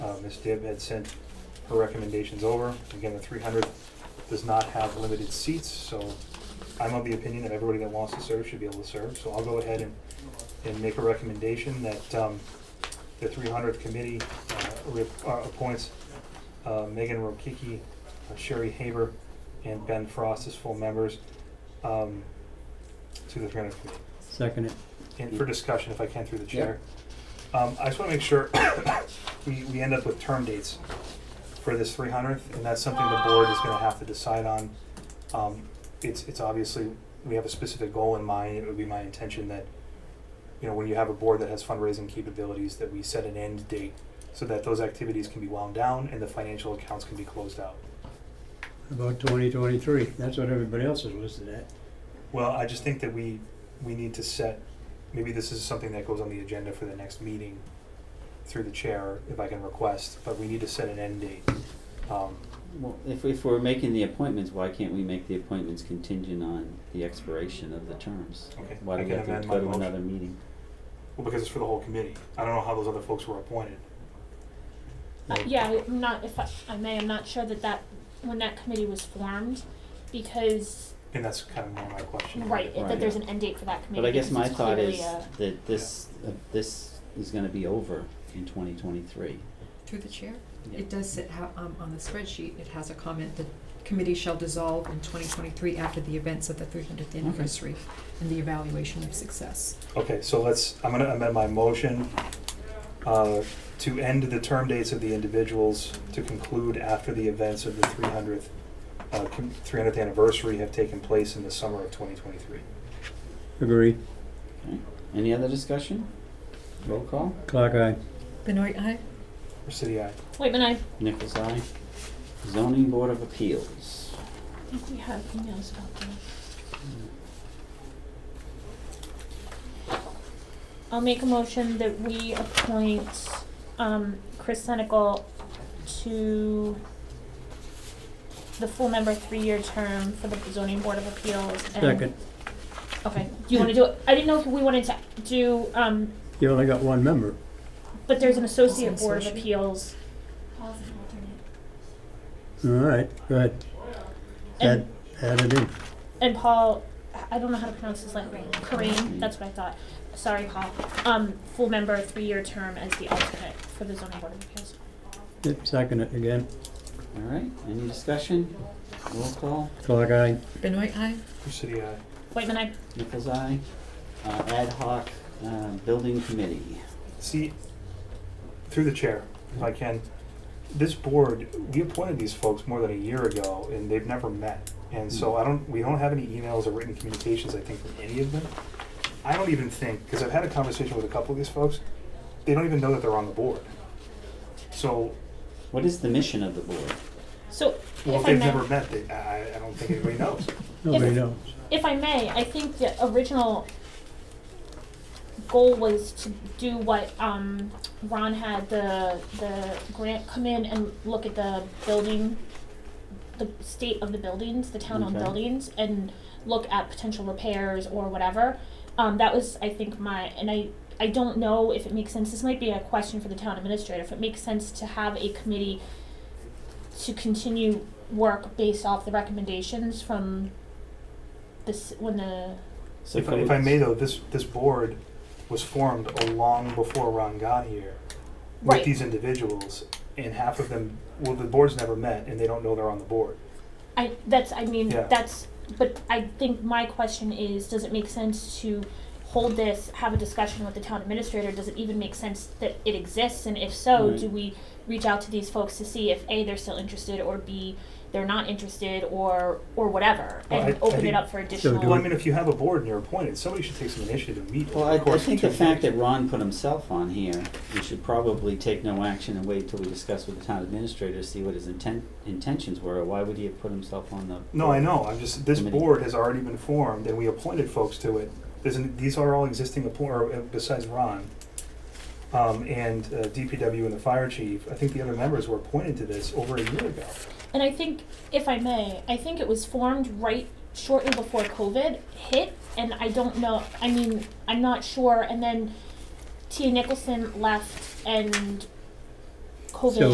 Uh, Ms. Dibb had sent her recommendations over. Again, the 300 does not have limited seats, so I'm of the opinion that everybody that wants to serve should be able to serve. So I'll go ahead and, and make a recommendation that um, the 300th committee uh, re- uh, appoints uh, Megan Rokicki, uh, Sherry Haber, and Ben Frost as full members um, to the 300th committee Second it. and for discussion, if I can, through the chair. Um, I just wanna make sure we, we end up with term dates for this three hundredth, and that's something the board is gonna have to decide on. Um, it's, it's obviously, we have a specific goal in mind, it would be my intention that, you know, when you have a board that has fundraising capabilities, that we set an end date so that those activities can be wound down and the financial accounts can be closed out. About twenty twenty-three, that's what everybody else is listed at. Well, I just think that we, we need to set, maybe this is something that goes on the agenda for the next meeting through the chair, if I can request, but we need to set an end date. Um, Well, if, if we're making the appointments, why can't we make the appointments contingent on the expiration of the terms? Okay, Why do I we can have to amend my go to motion. another meeting? Well, because it's for the whole committee. I don't know how those other folks were appointed. Uh, yeah, I'm not, if I, I may, I'm not sure that that, when that committee was formed, because, And that's kind of more my question. right, it- Right. that there's an end date for that committee, But I guess because my it's thought clearly is a- that this, uh, this is gonna be over in twenty twenty-three. Through the chair, it does sit, how, um, on the spreadsheet, it has a comment, the committee shall dissolve in twenty twenty-three after the events of the three hundredth anniversary and the evaluation of success. Okay, so let's, I'm gonna amend my motion, uh, to end the term dates of the individuals to conclude after the events of the three hundredth, uh, three hundredth anniversary have taken place in the summer of twenty twenty-three. Agree. Okay. Any other discussion? Roll call. Clock eye. Benoit, aye? City, aye. Waitman, I Nichols, eye. Zoning Board of Appeals. think we have emails about that. Hmm. I'll make a motion that we appoint, um, Chris Senecal to the full member three-year term for the zoning board of appeals and Second. Okay, do you wanna do it, I didn't know if we wanted to do, um, You only got one member. but there's an associate Also board of associate. appeals. All right, go ahead. Add, And, add it in. and Paul, I don't know how to pronounce his last name, Kareem, that's what I thought, sorry, Paul. Um, full member, three-year term as the alternate for the zoning board of appeals. Yep, Second it again. All right, any discussion? Roll call. Clock eye. Benoit, aye? City, aye. Waitman, I, Nichols, eye. Uh, ad hoc, uh, building committee. See, through the chair, if I can, this board, we appointed these folks more than a year ago, and they've never met. And so I don't, we don't have any emails or written communications, I think, from any of them. I don't even think, because I've had a conversation with a couple of these folks, they don't even know that they're on the board. So, What is the mission of the board? so, well, if if I they've may, never met, they, I, I don't think anybody knows. Nobody If- knows. if I may, I think the original goal was to do what, um, Ron had the, the grant come in and look at the building, the state of the buildings, the town-owned Okay. buildings, and look at potential repairs or whatever. Um, that was, I think, my, and I, I don't know if it makes sense, this might be a question for the town administrator, if it makes sense to have a committee to continue work based off the recommendations from this, when the, So If, I- could we- if I may though, this, this board was formed long before Ron got here. Right. With these individuals, and half of them, well, the board's never met, and they don't know they're on the board. I, that's, I mean, Yeah. that's, but I think my question is, does it make sense to hold this, have a discussion with the town administrator? Does it even make sense that it exists? And if so, Right. do we reach out to these folks to see if A, they're still interested, or B, they're not interested, or, or whatever? Well, And I- I open it think- up for So do additional. Well, I mean, if you have a board and you're appointed, somebody should take some initiative and meet. Well, over I, I course of think two the fact that meetings. Ron put himself on here, we should probably take no action and wait till we discuss with the town administrator, to see what his inten- intentions were, or why would he have put himself on the? No, I know, I'm just, this Committee. board has already been formed, and we appointed folks to it. There's, an- these are all existing appoint, or uh, besides Ron, um, and uh, DPW and the fire chief, I think the other members were appointed to this over a year ago. And I think, if I may, I think it was formed right shortly before COVID hit, and I don't know, I mean, I'm not sure, and then Tia Nicholson left and COVID So